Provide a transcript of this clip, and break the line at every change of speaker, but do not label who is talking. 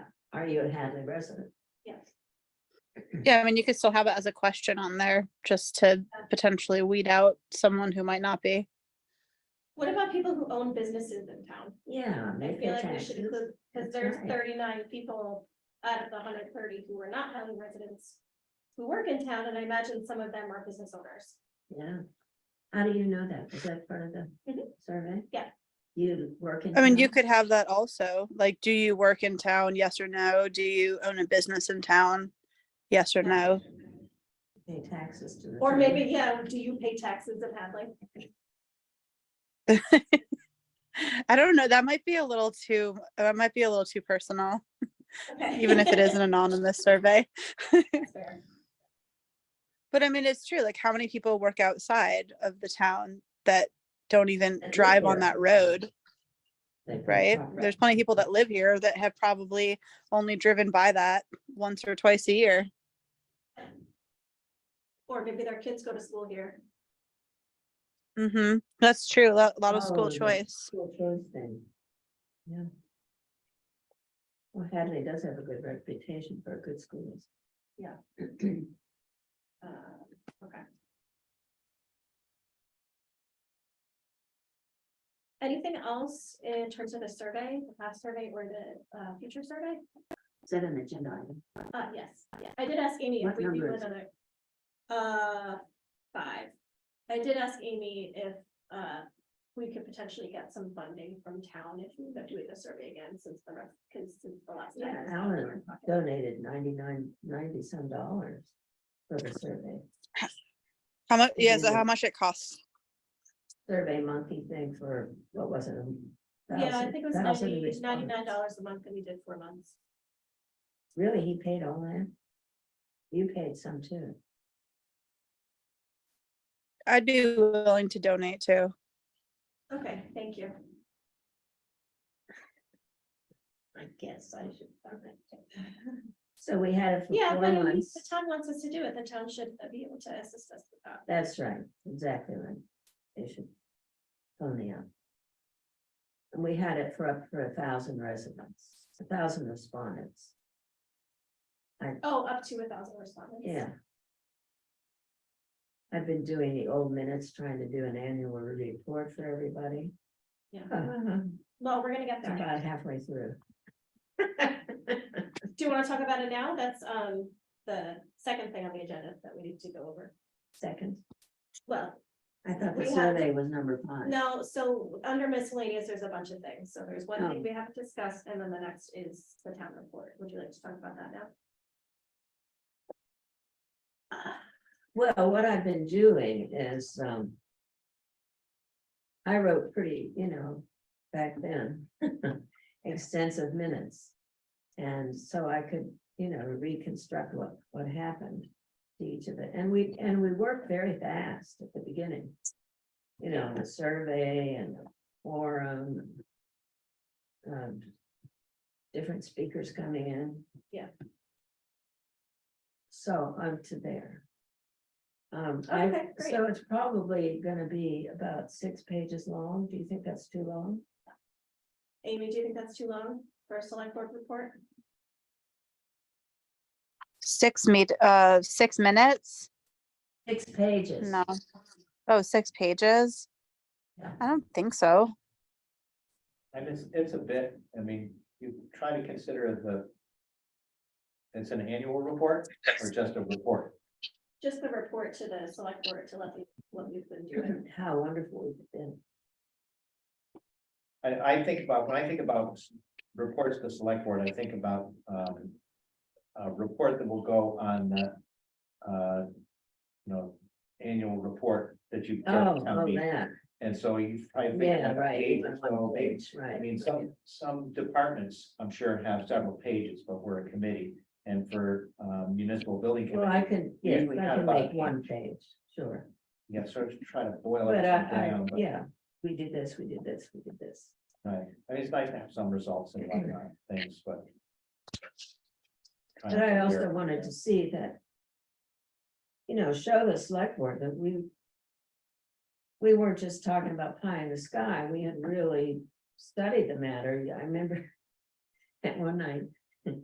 Are you a Hadley resident?
Yes.
Yeah, I mean, you could still have it as a question on there just to potentially weed out someone who might not be.
What about people who own businesses in town?
Yeah,
I
they pay
feel like we should
taxes.
include,
That's
because there's
right.
thirty-nine people out of the hundred thirty who are not Highland residents who work in town, and I imagine some of them are business owners.
Yeah. How do you know that? Is that part of the
Mhm.
survey?
Yeah.
You work in.
I mean, you
town?
could have that also, like, do you work in town? Yes or no? Do you own a business in town? Yes or no?
Pay taxes to the.
Or
town.
maybe, yeah, do you pay taxes in Hadley?
I don't know. That might be a little too, that might be a little too personal,
Okay.
even if it is an anonymous survey.
That's fair.
But I mean, it's true. Like, how many people work outside of the town that don't even
That live
drive on
here.
that road?
They pay
right?
property.
There's plenty of people that live here that have probably only driven by that once or twice a year.
Or maybe their kids go to school here.
hmm That's true. A lot, lot of
Oh,
school
yeah.
choice.
School choice thing. Yeah. Well, Hadley does have a good reputation for good schools.
Yeah. Uh, Okay. Anything else in terms of the survey, the past survey or the uh, future survey?
Is that an agenda item?
Uh, yes, I did ask Amy if
What
we do
number is
another. Uh, five. I did ask Amy if, uh, we could potentially get some funding from town if we end up doing the survey again since the rest, because since the last time.
Yeah,
it's not in our
Alan
pocket.
donated ninety-nine, ninety some dollars for the survey,
How much? Yeah, so
Yeah.
how much it costs?
survey monkey thing for, what was it? a
Yeah, I
thousand-
think it was
thousand
ninety, ninety-nine
responses.
dollars a month that we did four months.
Really, he paid all that? You paid some too.
I'd be willing to donate too.
Okay, thank you.
I guess I should. So we had it
Yeah,
for
but
four
I mean, if
months.
the town wants us to do it, the town should be able to assist us with that.
That's right, exactly right. They should. Only up. And we had it for up for a thousand residents, a thousand respondents,
Oh, up to a thousand respondents.
yeah. I've been doing the old minutes, trying to do an annual report for everybody.
Yeah.
About
Well, we're gonna get there.
halfway through.
Do you want to talk about it now? That's um the second thing on the agenda that we need to go over.
Second,
Well,
I thought the
We have-
survey was number five.
no, so under miscellaneous, there's a bunch of things. So there's one
Oh.
thing we have to discuss and then the next is the town report. Would you like to talk about that now? Uh,
Well, what I've been doing is, um. I wrote pretty, you know, back then, extensive minutes. And so I could, you know, reconstruct what, what happened to each of it. And we, and we worked very fast at the beginning. You know, the survey and the forum. um, Different speakers coming in.
Yeah.
So I'm to there. Um,
Okay,
I,
great.
so it's probably gonna be about six pages long. Do you think that's too long?
Amy, do you think that's too long for a select board report?
Six meet, uh, six minutes?
Six pages.
No. Oh, six pages?
Yeah.
I don't think so.
And it's, it's a bit, I mean, you try to consider the. It's an annual report or just a report?
Just the report to the select board to let me, what we've been doing.
And How wonderful it's been.
I, I think about, when I think about s- reports to select board, I think about, um. A report that will go on the, uh, you know, annual report that you. get
Oh,
at town
oh,
meeting.
that,
And so you, I think.
yeah,
like
right.
eight or
on
so
one
pages.
page, Right.
I mean, some, some departments, I'm sure have several pages, but we're a committee. And for um, municipal building
Well, I
committee,
can,
Yeah,
yeah,
we
I
had
can
about a
make one page, sure.
you have sort of try to boil it
But I, I,
down. but-
yeah, we did this, we did this, we did this.
Right, I mean, it's nice to have some results and whatnot, things, but.
But I also wanted to see that. You know, show the select board that we. We weren't just talking about pie in the sky, we had really studied the matter, I remember. At one night,